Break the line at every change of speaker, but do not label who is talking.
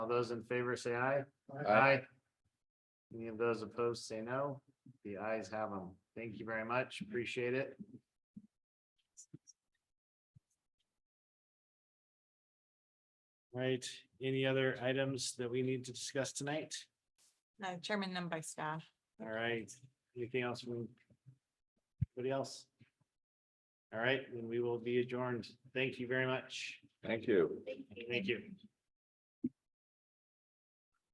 those in favor say aye.
Aye.
Any of those opposed say no. The ayes have them. Thank you very much. Appreciate it. Right, any other items that we need to discuss tonight?
No, Chairman, none by staff.
All right, anything else from? Anybody else? All right, then we will be adjourned. Thank you very much.
Thank you.
Thank you.